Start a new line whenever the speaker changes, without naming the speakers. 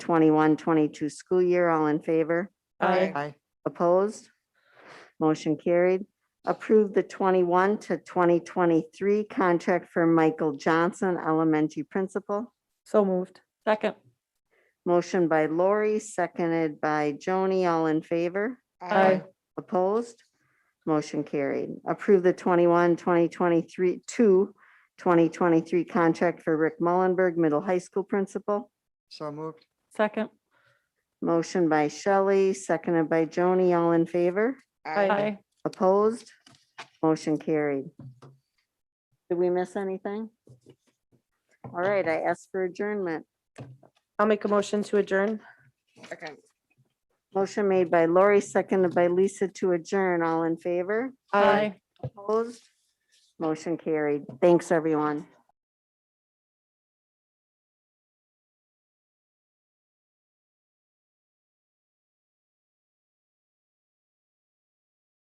21, 22 school year. All in favor?
Aye.
Aye.
Opposed? Motion carried. Approve the 21 to 2023 contract for Michael Johnson, elementary principal.
So moved.
Second.
Motion by Lori, seconded by Joni. All in favor?
Aye.
Opposed? Motion carried. Approve the 21, 2023, to 2023 contract for Rick Mullenberg, middle high school principal.
So moved.
Second.
Motion by Shelley, seconded by Joni. All in favor?
Aye.
Opposed? Motion carried. Did we miss anything? All right, I ask for adjournment.
I'll make a motion to adjourn.
Second.
Motion made by Lori, seconded by Lisa to adjourn. All in favor?
Aye.
Opposed? Motion carried. Thanks, everyone.